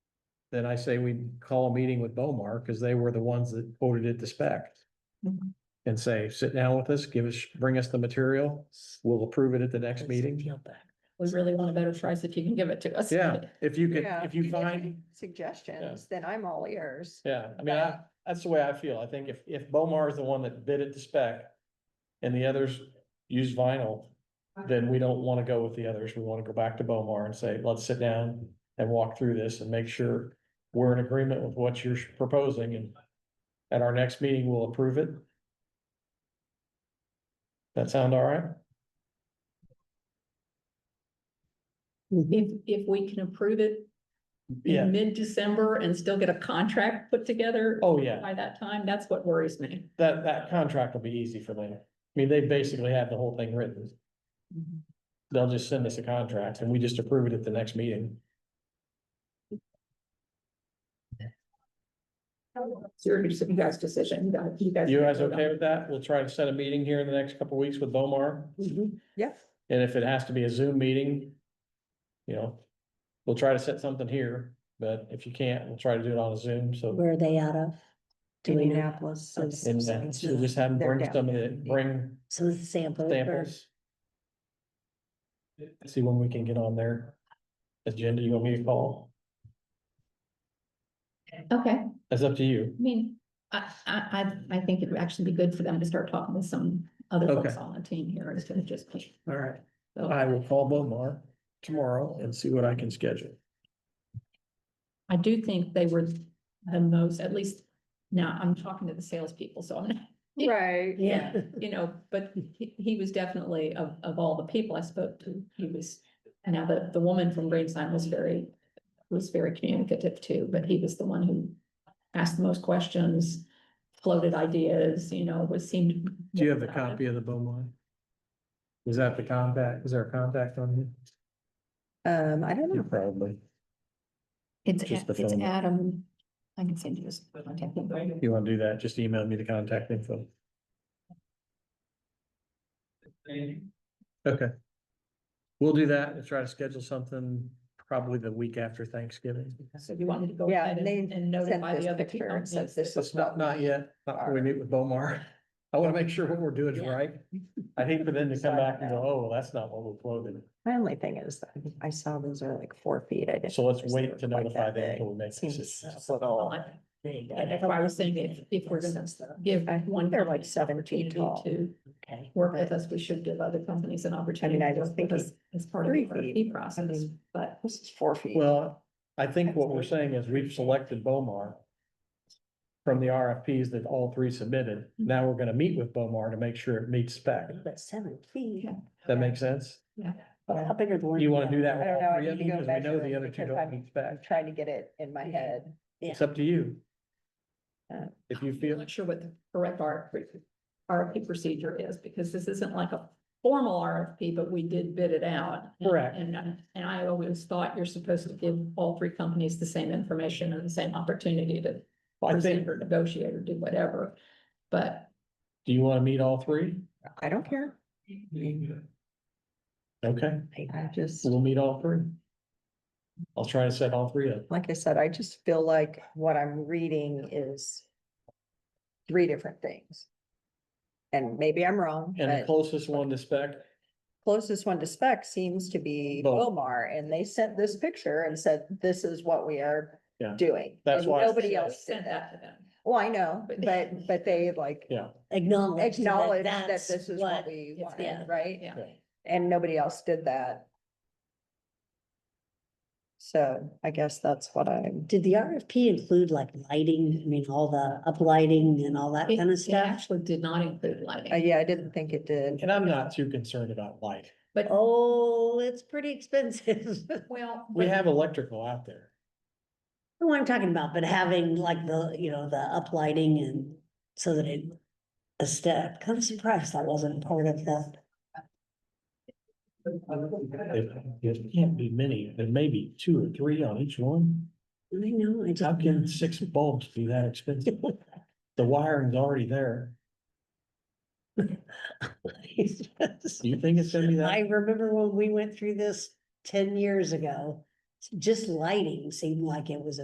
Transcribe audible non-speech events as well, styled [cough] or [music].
then I say we call a meeting with Bomar, because they were the ones that quoted it to spec. Mhm. And say, sit down with us, give us, bring us the material, we'll approve it at the next meeting. We really want a better price if you can give it to us. Yeah, if you could, Yeah, if you give me find, Suggestions, then I'm all ears. yeah, I mean, I, that's the way I feel. I think if, if Bomar is the one that bid it to spec and the others use vinyl, then we don't want to go with the others. We want to go back to Bomar and say, let's sit down and walk through this and make sure we're in agreement with what you're proposing and at our next meeting, we'll approve it. That sound all right? [laughs] If, if we can approve it Yeah, in mid-December and still get a contract put together oh, yeah. by that time, that's what worries me. That, that contract will be easy for them. I mean, they basically have the whole thing written. They'll just send us a contract and we just approve it at the next meeting. It's your, it's you guys' decision. You guys- You guys. You guys okay with that? We'll try to set a meeting here in the next couple of weeks with Bomar. Yes. And if it has to be a Zoom meeting, you know, we'll try to set something here, but if you can't, we'll try to do it on a Zoom, so. Where are they out of? Do we know? Indianapolis Okay. is- And then we'll just have them bring They're some of down. the, bring So this is sample. or- samples. See when we can get on their agenda, you want me to call? Okay, I That's up to you. mean, I, I, I, I think it'd actually be good for them to start talking with some other folks Okay. on the team here instead of just me. All right. So I will call Bomar tomorrow and see what I can schedule. I do think they were the most, at least now I'm talking to the salespeople, so I'm not Right. Yeah, [laughs] you know, but he, he was definitely of, of all the people I spoke to, he was, now the, the woman from Greensign was very, was very communicative too, but he was the one who asked the most questions, floated ideas, you know, was seemed. Do you have the copy of the Bomar? Is that the contact? Is there a contact on you? Um, I don't know. Probably. It's, Just the it's phone. Adam, I can send you this. contact info. You want to do that, just email me the contact info. Okay. We'll do that and try to schedule something probably the week after Thanksgiving. So you wanted to go Yeah, ahead and they and and Sent notify this the other picture people. and said Yes. this Let's is not, what not yet, not before we meet with Bomar. I want to make sure what we're doing is Yeah. right. I hate for them to come back and go, oh, well, that's not what we quoted. My only thing is, that I saw those are like four feet. I didn't. So let's realize they wait were to quite notify that them big. until we make Seems decisions. a little big. Yeah, that's why I was saying if, if we're gonna give I think one. they're like company an seven opportunity feet tall. To Okay. work with us, we should give other companies an opportunity. I to was work with us thinking As part of three our fee feet. process, mean- but This is four feet. Well, I think what we're saying is we've selected Bomar from the RFPs that all three submitted. Now we're gonna meet with Bomar to make sure it meets spec. but seven feet. Yeah. That makes sense? yeah, But How big are the ones? You wanna do that I with don't know. all I three of need them? to go Because we know measure the it other two because don't I'm meet spec. trying to get it in my head. Yeah. It's up to you. Uh, If you I'm feel, not sure what the correct RFP, RFP procedure is, because this isn't like a formal RFP, but we did bid it out. Correct. And, and I always thought you're supposed to give all three companies the same information and the same opportunity to I think, present or negotiate or do whatever, but do you wanna meet all three? I don't care. Okay, I just, we'll meet all three. I'll try to set all three up. like I said, I just feel like what I'm reading is three different things. And maybe I'm wrong, And the but closest one to spec, closest one to spec seems to be Both. Omar, and they sent this picture and said, this is what we are Yeah. doing. That's And why I Nobody said- we else sent did that. that to them. Well, I know, But- but, but they like Yeah. Acknowledge. that acknowledged that that's this is what we it's- wanted, yeah. right? Yeah. And nobody else did that. So I guess that's what I'm, Did the RFP include like lighting, I mean, all the uplighting and all that It- kind of It stuff? actually did not include uh, lighting, yeah, I didn't think it did. and I'm not too concerned about light. but, Oh, it's pretty expensive. [laughs] well. We but- have electrical out there. What I'm talking about, but having like the, you know, the uplighting and so that it. A step, kind of surprised that wasn't part of the, There can't be many, there may be two or three on each one. I know, I How just. can six bulbs be that expensive? The wiring's already there. Do you think it's gonna [laughs] be I that? remember when we went through this ten years ago, just lighting seemed like it was a